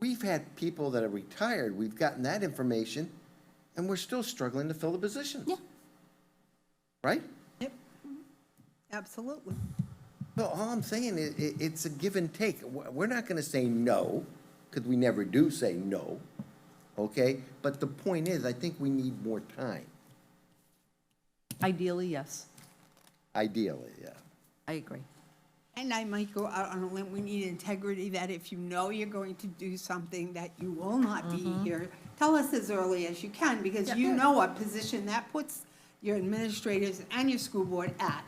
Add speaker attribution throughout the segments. Speaker 1: we've had people that are retired, we've gotten that information, and we're still struggling to fill the positions.
Speaker 2: Yeah.
Speaker 1: Right?
Speaker 3: Yep, absolutely.
Speaker 1: So all I'm saying is, i- it's a give and take. We're we're not gonna say no, because we never do say no, okay? But the point is, I think we need more time,
Speaker 2: Ideally, yes.
Speaker 1: ideally, yeah.
Speaker 2: I agree.
Speaker 3: And I might go out on a limb, we need integrity, that if you know you're going to do something, that you will not be here, tell us as early as you can, because you know what position that puts your administrators and your school board at.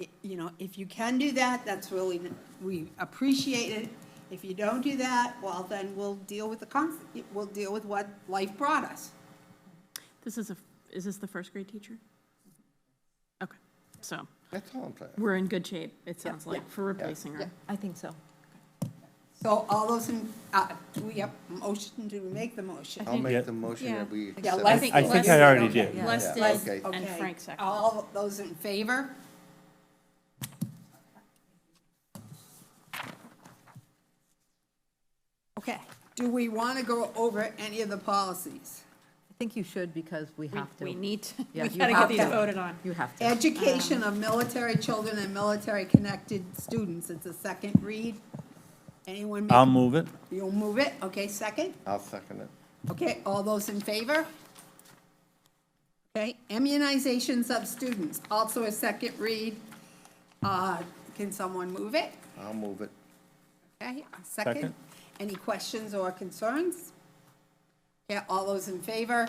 Speaker 3: I- You know, if you can do that, that's really, we appreciate it. If you don't do that, well, then we'll deal with the, cons- we'll deal with what life brought us.
Speaker 4: This is a, is this the first grade teacher? Okay, so
Speaker 1: That's all I'm saying.
Speaker 4: we're in good shape, it sounds like, for replacing her.
Speaker 2: I think so.
Speaker 3: So all those, in- uh, do we have a motion to make the motion?
Speaker 1: I'll
Speaker 5: Yeah.
Speaker 1: make the motion that we
Speaker 3: Yeah,
Speaker 1: accept.
Speaker 3: Les-
Speaker 1: it.
Speaker 5: I think
Speaker 4: Les-
Speaker 5: I already
Speaker 3: Okay.
Speaker 5: did.
Speaker 2: Yeah.
Speaker 4: Les
Speaker 1: Yeah,
Speaker 4: did,
Speaker 1: okay.
Speaker 4: and
Speaker 3: Okay.
Speaker 4: Frank seconded.
Speaker 3: All those in favor? Okay, do we want to go over any of the policies?
Speaker 2: I think you should because we have to.
Speaker 4: We need, to-
Speaker 2: Yeah,
Speaker 4: we
Speaker 2: you
Speaker 4: gotta
Speaker 2: have
Speaker 4: get these
Speaker 3: to.
Speaker 4: voted on.
Speaker 2: You have to.
Speaker 3: Education of military children and military-connected students, it's a second read. Anyone? make-
Speaker 5: I'll move it.
Speaker 3: You'll move it, okay, second?
Speaker 1: I'll second it.
Speaker 3: Okay, all those in favor? Okay, immunizations of students, also a second read. Uh, Can someone move it?
Speaker 1: I'll move it.
Speaker 3: Okay, a second.
Speaker 5: Second.
Speaker 3: Any questions or concerns? Yeah, all those in favor?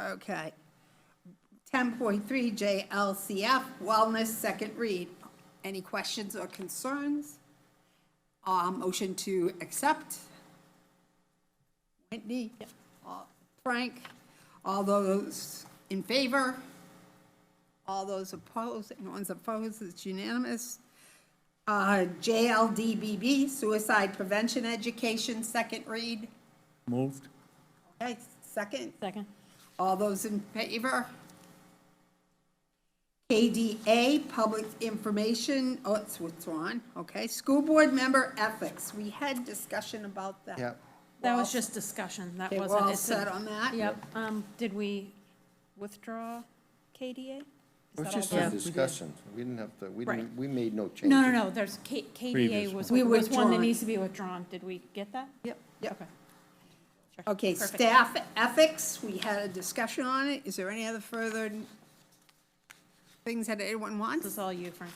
Speaker 3: Okay. 10.3 JLCF Wellness, second read. Any questions or concerns? Uh, Motion to accept? Whitney? Uh, Frank? All those in favor? All those opposed? Anyone's opposed? It's unanimous. Uh, JLDBB, Suicide Prevention Education, second read.
Speaker 5: Moved.
Speaker 3: Okay, second.
Speaker 4: Second.
Speaker 3: All those in favor? KDA, Public Information, oh, it's withdrawn, okay. School Board Member Ethics, we had discussion about that.
Speaker 1: Yeah.
Speaker 4: That was just discussion, that
Speaker 3: Okay, we're
Speaker 4: wasn't.
Speaker 3: all
Speaker 4: it's a-
Speaker 3: set on that?
Speaker 4: Yep, um, did we withdraw KDA? Is
Speaker 1: It was
Speaker 4: that all
Speaker 1: just
Speaker 4: done?
Speaker 1: a discussion. We didn't have to, we didn't,
Speaker 4: Right.
Speaker 1: we made no changes.
Speaker 4: No, no, no, there's, K- KDA
Speaker 5: Previous
Speaker 4: was,
Speaker 3: one. We
Speaker 4: was one that
Speaker 3: withdrawn.
Speaker 4: needs to be withdrawn, did we get that?
Speaker 2: Yep.
Speaker 3: Yep. Okay,
Speaker 4: Perfect.
Speaker 3: Staff Ethics, we had a discussion on it. Is there any other further things that anyone wants?
Speaker 4: This is all you, Frank.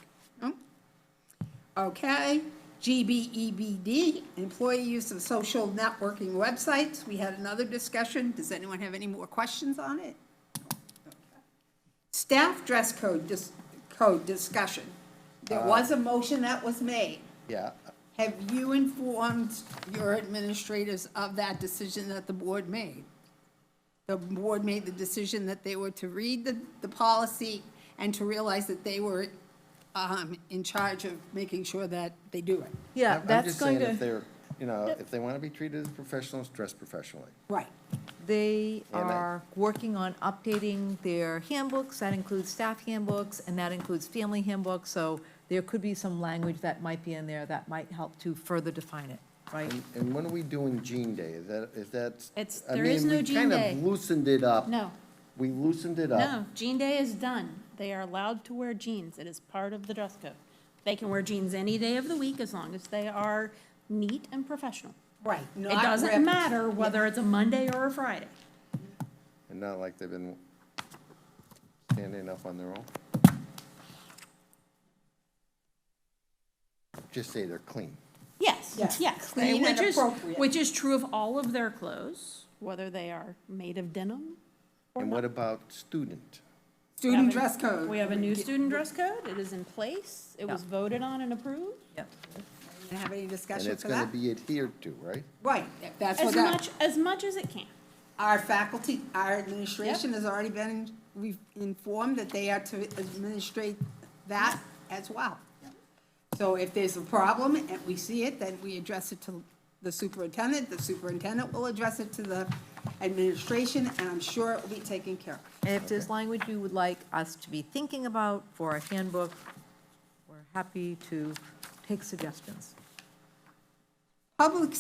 Speaker 3: Okay, GBEBD, employee use of social networking websites. We had another discussion. Does anyone have any more questions on it? Staff dress code, dis- code discussion. There was a motion that was made.
Speaker 1: Yeah,
Speaker 3: Have you informed your administrators of that decision that the board made? The board made the decision that they were to read the, the policy and to realize that they were, um, in charge of making sure that they do it.
Speaker 2: Yeah,
Speaker 1: I'm- I'm
Speaker 2: that's
Speaker 1: just
Speaker 2: going
Speaker 1: saying if
Speaker 2: to,
Speaker 1: they're, you know, if they want to be treated as professionals, dress professionally.
Speaker 3: Right.
Speaker 2: they
Speaker 1: Yeah, and I-
Speaker 2: are working on updating their handbooks. That includes staff handbooks and that includes family handbooks. So there could be some language that might be in there that might help to further define it, right?
Speaker 1: And- And when are we doing Jean Day? Is that, is that?
Speaker 4: It's-
Speaker 1: I
Speaker 4: there is
Speaker 1: mean,
Speaker 4: no
Speaker 1: we
Speaker 4: Jean
Speaker 1: kind
Speaker 4: Day.
Speaker 1: of loosened it up.
Speaker 4: No.
Speaker 1: We loosened it up.
Speaker 4: No, jean day is done. They are allowed to wear jeans. It is part of the dress code. They can wear jeans any day of the week as long as they are neat and professional.
Speaker 3: Right.
Speaker 4: It doesn't matter whether it's a Monday or a Friday.
Speaker 1: And not like they've been standing up on their own. Just say they're clean.
Speaker 4: Yes,
Speaker 3: Yes,
Speaker 4: yes.
Speaker 3: clean
Speaker 4: Which
Speaker 3: and
Speaker 4: is,
Speaker 3: appropriate.
Speaker 4: which is true of all of their clothes, whether they are made of denim.
Speaker 1: And what about student?
Speaker 3: Student dress code.
Speaker 4: We have a new student dress code. It is in place. It was voted on and approved.
Speaker 2: Yep.
Speaker 3: Didn't Have any
Speaker 1: And
Speaker 3: discussion
Speaker 1: it's
Speaker 3: for
Speaker 1: gonna
Speaker 3: that?
Speaker 1: be adhered to, right?
Speaker 3: Right, that's what
Speaker 4: As
Speaker 3: that.
Speaker 4: much, as much as it can.
Speaker 3: Our faculty, our administration has already been, we've informed that they are to administrate that as well. So if there's a problem and we see it, then we address it to the superintendent, the superintendent will address it to the administration, and I'm sure it will be taken care of.
Speaker 2: And if there's language you would like us to be thinking about for a handbook, we're happy to take suggestions.
Speaker 3: Public